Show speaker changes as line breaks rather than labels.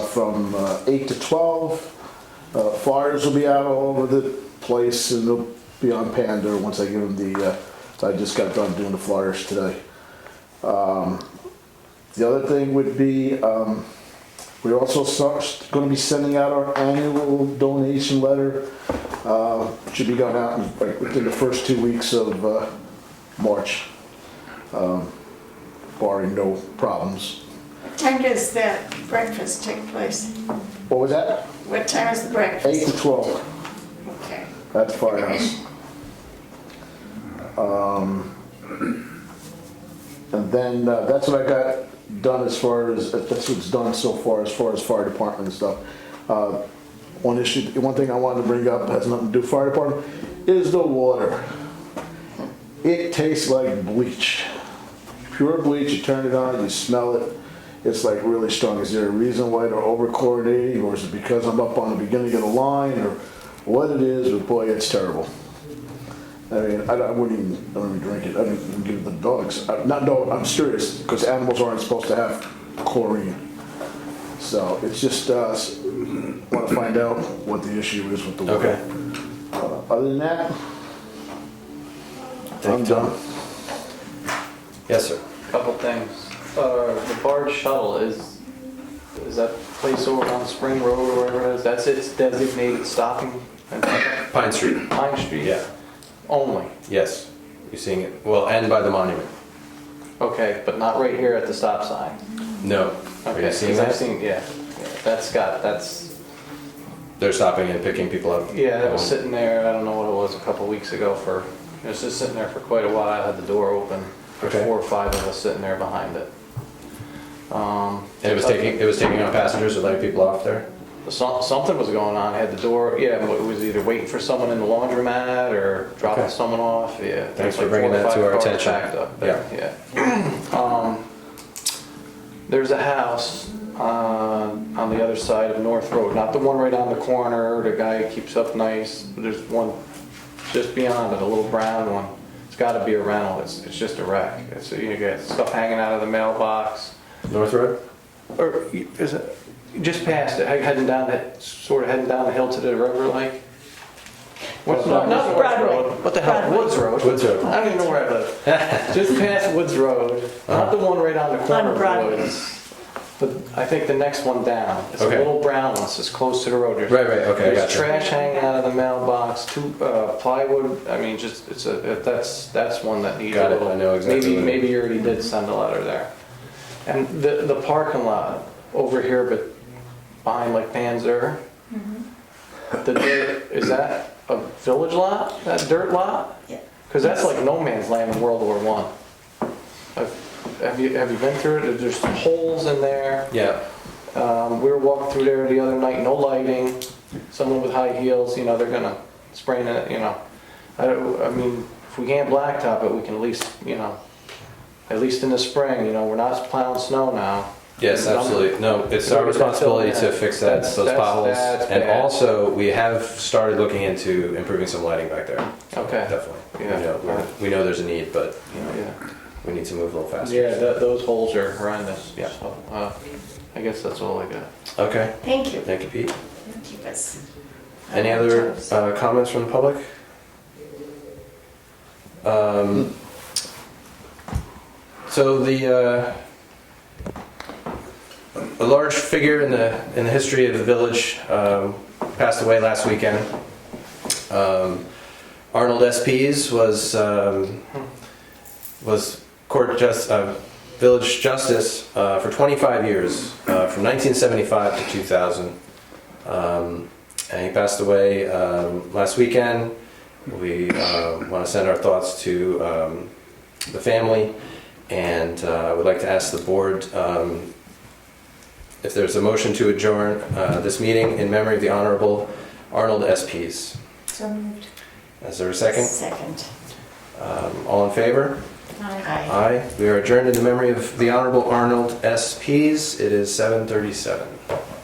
from uh, eight to twelve. Uh, Flyers will be out all over the place and they'll be on Panda once I give them the, uh, I just got done doing the flyers today. Um, The other thing would be, um, we're also start, gonna be sending out our annual donation letter. Uh, should be going out in, like, within the first two weeks of, uh, March. um, Barring no problems.
Time does that breakfast take place?
What was that?
What time is the
Eight
breakfast?
to twelve,
Okay.
that's firehouse. Um, And then, uh, that's what I got done as far as, that's what's done so far, as far as fire department and stuff. Uh, One issue, one thing I wanted to bring up, has nothing to do with fire department, is the water. It tastes like bleach. Pure bleach, you turn it on, you smell it, it's like really strong. Is there a reason why they're over chlorinating, or is it because I'm up on the beginning of the line, or what it is, but boy, it's terrible. I mean, I, I wouldn't even, I wouldn't even drink it. I wouldn't even give it to the dogs. I, not dog. I'm serious because animals aren't supposed to have chlorine. So it's just uh, want to find out what the issue is with the water.
Okay.
Uh, other than that, I'm
Thank you, Tom.
done.
Yes, sir.
Couple things. Uh, the barge shuttle is, is that place over on Spring Road or wherever it is, that's its designated stopping and pickup?
Pine Street.
Pine Street?
Yeah.
Only.
Yes. You're seeing it. Well, and by the monument.
Okay, but not right here at the stop sign.
No. Are
Okay,
you seeing
'cause I've
that?
seen, yeah, yeah, that's got, that's,
They're stopping and picking people up.
yeah, that was sitting there, I don't know what it was, a couple weeks ago for, it was just sitting there for quite a while, had the door open. There's
Okay.
four or five of us sitting there behind it. Um,
And it was taking it was taking on passengers or letting people off there.
Some- Something was going on, had the door, yeah, it was either waiting for someone in the laundromat or dropping
Okay.
someone off, yeah.
Thanks
There's
for
like
bringing
four or
that to
five
our
cars
attention.
Backed up there, yeah. Um, There's a house uh, on the other side of North Road, not the one right on the corner, the guy who keeps up nice, but there's one just beyond it, a little brown one. It's gotta be a rental, it's, it's just a wreck. It's, you got stuff hanging out of the mailbox.
North Road.
Or is it, just past it, heading down that, sort of heading down the hill to the river like? What's not, not Broadway. What the hell, Woods Road?
Woods Road.
I don't even know where I live. Just past Woods Road, not
Uh-huh.
the one right on the corner of
Broadway.
Woods. But I think the next one down, it's a
Okay.
little brown one, so it's close to the road. There's-
Right, right, okay, I
There's
gotcha.
trash hanging out of the mailbox, two, uh, plywood, I mean, just, it's a, that's, that's one that needs a
Got it,
little.
I know exactly
Maybe,
what it is.
maybe you already did send a letter there. And the, the parking lot over here, but behind like Panzer, the dirt, is that a village lot, that dirt lot?
Yeah.
Because that's like no man's land in World War One. Have- Have you, have you been through it? There's holes in there.
Yeah.
Um, we were walking through there the other night, no lighting, someone with high heels, you know, they're gonna sprain it, you know. I, don't- I mean, if we can't blacktop it, we can at least, you know, at least in the spring, you know, we're not plowing snow now.
Yes, absolutely. No, it's our responsibility to fix that those
That's-
potholes.
that's
And
bad.
also, we have started looking into improving some lighting back there.
Okay,
Definitely.
Yeah.
We know, we're- we know there's a need, but you know,
yeah.
we need to move a little faster.
Yeah, tho- those holes are horrendous.
Yeah.
So, uh, I guess that's all I got.
Okay.
Thank you.
Thank you, Pete.
Keep us.
Any other uh, comments from the public? Um, So the, uh, a large figure in the, in the history of the village um, passed away last weekend. Um, Arnold S. Pease was, um, was court jus, uh, village justice uh, for 25 years, uh, from 1975 to 2000. Um, and he passed away um, last weekend. We uh, want to send our thoughts to um, the family, and uh, I would like to ask the board um, if there's a motion to adjourn uh, this meeting in memory of the Honorable Arnold S. Pease.
So moved.
Is there a uh, second?
Second.
Um, all in favor?
Aye.
Aye. We are adjourned in the memory of the Honorable Arnold S. Pease. It is 7:37.